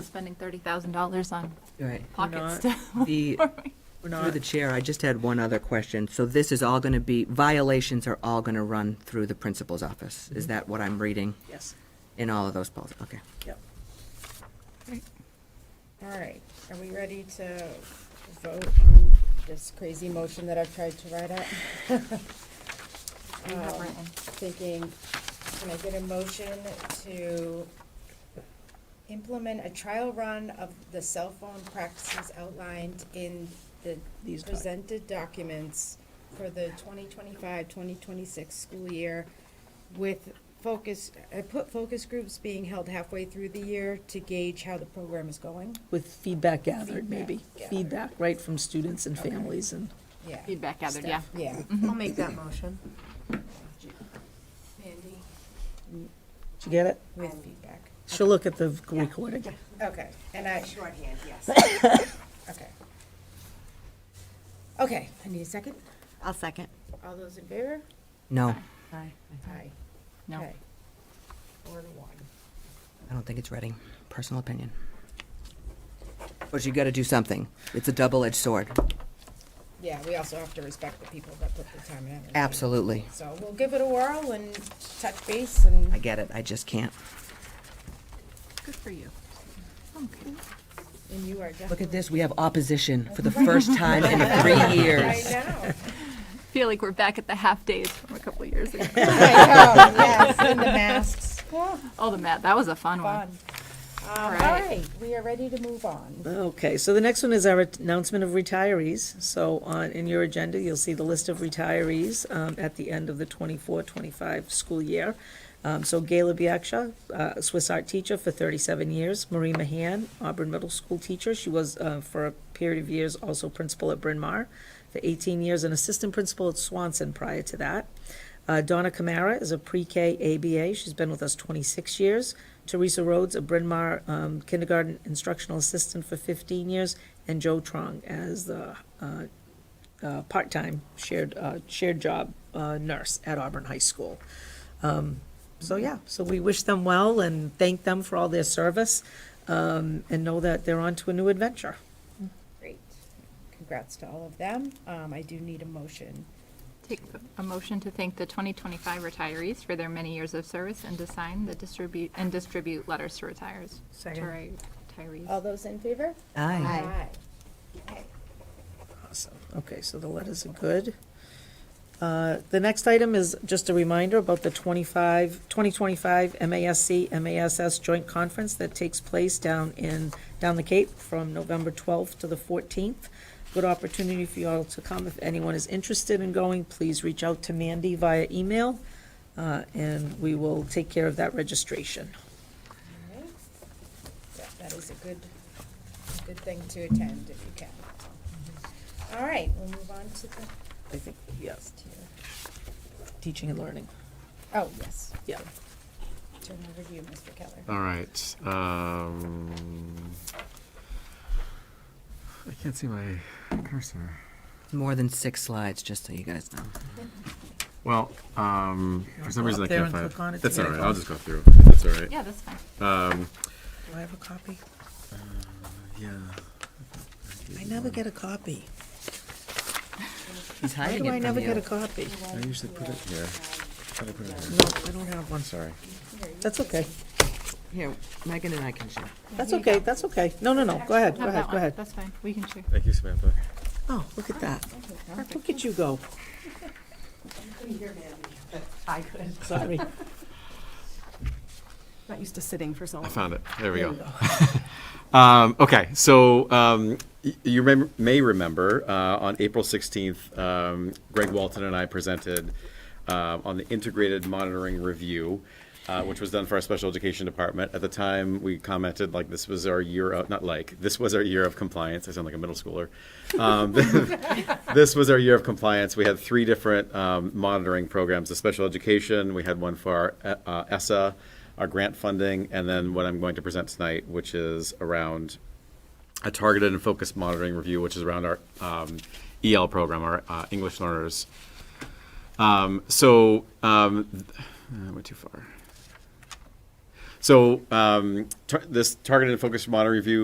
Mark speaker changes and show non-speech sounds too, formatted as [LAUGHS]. Speaker 1: spending thirty thousand dollars on
Speaker 2: All right.
Speaker 1: pockets
Speaker 3: Not
Speaker 1: to. [LAUGHS]
Speaker 2: The, through
Speaker 3: We're not,
Speaker 2: the chair, I just had one other question. So this is all going to be, violations are all going to run through the principal's office? Is that what I'm reading
Speaker 3: yes,
Speaker 2: in all of those policies? Okay.
Speaker 3: yep.
Speaker 4: All right, are we ready to vote on this crazy motion that I've tried to write up?
Speaker 1: You have
Speaker 4: Um,
Speaker 1: written.
Speaker 4: Thinking, can I get a motion to implement a trial run of the cell phone practices outlined in the
Speaker 3: These doc-
Speaker 4: presented documents for the 2025-2026 school year with focus, I put focus groups being held halfway through the year to gauge how the program is going?
Speaker 3: With feedback gathered,
Speaker 4: Feedback
Speaker 3: maybe.
Speaker 4: gathered.
Speaker 3: Feedback, right, from students and
Speaker 4: Okay.
Speaker 3: families and.
Speaker 4: Yeah.
Speaker 1: Feedback gathered, yeah.
Speaker 4: Yeah.
Speaker 5: I'll make that motion.
Speaker 4: Mandy.
Speaker 3: Did you get it?
Speaker 4: With feedback.
Speaker 3: She'll look at the recording.
Speaker 4: Okay, and I,
Speaker 5: Shorthand, yes.
Speaker 4: [COUGHS] okay. Okay, I need a second.
Speaker 5: I'll second.
Speaker 4: All those in favor?
Speaker 2: No,
Speaker 5: Aye.
Speaker 4: Aye.
Speaker 1: No.
Speaker 4: Okay. Four to one.
Speaker 2: I don't think it's Reading. Personal opinion. But you got to do something. It's a double-edged sword.
Speaker 4: Yeah, we also have to respect the people that put the time and effort.
Speaker 2: Absolutely.
Speaker 4: So we'll give it a whirl and touch base and.
Speaker 2: I get it. I just can't.
Speaker 1: Good for you. Okay.
Speaker 4: And you are
Speaker 2: Look
Speaker 4: definitely.
Speaker 2: at this. We have opposition for
Speaker 3: [LAUGHS]
Speaker 2: the first time in [LAUGHS] three
Speaker 4: I
Speaker 2: years.
Speaker 4: know.
Speaker 1: Feel like we're back at the half days from a couple of years ago.
Speaker 4: [LAUGHS]
Speaker 3: [LAUGHS]
Speaker 4: [LAUGHS] I know, yes, and the masks. Yeah,
Speaker 1: Oh, the mat, that was a fun one.
Speaker 4: fun. Um, All
Speaker 1: right.
Speaker 4: right, we are ready to move on.
Speaker 3: Okay, so the next one is our announcement of retirees. So on, in your agenda, you'll see the list of retirees um, at the end of the 24-25 school year. Um, So Gayla Biaksha, uh, Swiss art teacher for thirty-seven years. Marie Mahan, Auburn Middle School teacher. She was, uh, for a period of years, also principal at Bryn Mawr for eighteen years and assistant principal at Swanson prior to that. Uh, Donna Kamara is a pre-K ABA. She's been with us 26 years. Teresa Rhodes, a Bryn Mawr um, kindergarten instructional assistant for 15 years, and Joe Trong as the uh, uh, part-time shared uh, shared job uh, nurse at Auburn High School. Um, so yeah, so we wish them well and thank them for all their service, um, and know that they're on to a new adventure.
Speaker 4: Great. Congrats to all of them. Um, I do need a motion.
Speaker 1: Take a motion to thank the 2025 retirees for their many years of service and to sign the distribute, and distribute letters to retires.
Speaker 5: Second.
Speaker 1: to Retirees.
Speaker 4: All those in favor?
Speaker 2: Aye.
Speaker 4: Aye.
Speaker 3: Awesome. Okay, so the letters are good. Uh, The next item is just a reminder about the 25, 2025 MASC, MASs Joint Conference that takes place down in, down the Cape from November 12th to the 14th. Good opportunity for you all to come. If anyone is interested in going, please reach out to Mandy via email, uh, and we will take care of that registration.
Speaker 4: All right. Yeah, That is a good, a good thing to attend if you can. All right, we'll move on to the
Speaker 3: I think, yes,
Speaker 4: next here.
Speaker 3: teaching and learning.
Speaker 4: Oh, yes.
Speaker 3: Yeah.
Speaker 4: Turn over to you, Mr. Keller.
Speaker 6: All right. Um, I can't see my cursor.
Speaker 2: More than six slides, just so you guys know.
Speaker 6: Well, um, for some
Speaker 3: Go
Speaker 6: reason
Speaker 3: up
Speaker 6: I
Speaker 3: there
Speaker 6: can't
Speaker 3: and
Speaker 6: find.
Speaker 3: click on it to
Speaker 6: That's
Speaker 3: get
Speaker 6: all
Speaker 3: it
Speaker 6: right.
Speaker 3: going.
Speaker 6: I'll just go through. if That's all right. Um,
Speaker 1: Yeah, that's fine.
Speaker 3: Do I have a copy?
Speaker 6: Yeah.
Speaker 3: I never get a copy.
Speaker 2: He's
Speaker 3: Why
Speaker 2: hiding
Speaker 3: do I
Speaker 2: it from
Speaker 3: never get a
Speaker 2: you.
Speaker 3: copy?
Speaker 6: I usually put it here. Try to put it here.
Speaker 3: No, I don't have one.
Speaker 6: Sorry.
Speaker 3: That's okay.
Speaker 2: Here, Megan and I can share.
Speaker 3: That's okay, that's okay. No, no, no, go ahead, go
Speaker 1: Have that
Speaker 3: ahead, go
Speaker 1: one.
Speaker 3: ahead.
Speaker 1: That's fine, we can share.
Speaker 6: Thank you, Samantha.
Speaker 3: Oh, look at that. Look at you go.
Speaker 5: I could.
Speaker 3: Sorry.
Speaker 5: Not used to sitting for so
Speaker 6: I
Speaker 5: long.
Speaker 6: found it. There we go. [LAUGHS] Um, okay, so um, y- you remem- may remember uh, on April 16th, um, Greg Walton and I presented uh, on the integrated monitoring review, uh, which was done for our special education department. At the time, we commented like this was our year of, not like, this was our year of compliance. I sound like a middle schooler. Um, [LAUGHS] this was our year of compliance. We had three different um, monitoring programs the special education, we had one for our uh, ESSA, our grant funding, and then what I'm going to present tonight, which is around a targeted and focused monitoring review, which is around our um, EL program, our uh, English learners. Um, so, um, th- uh, I went too far. So um, tar- this targeted and focused model review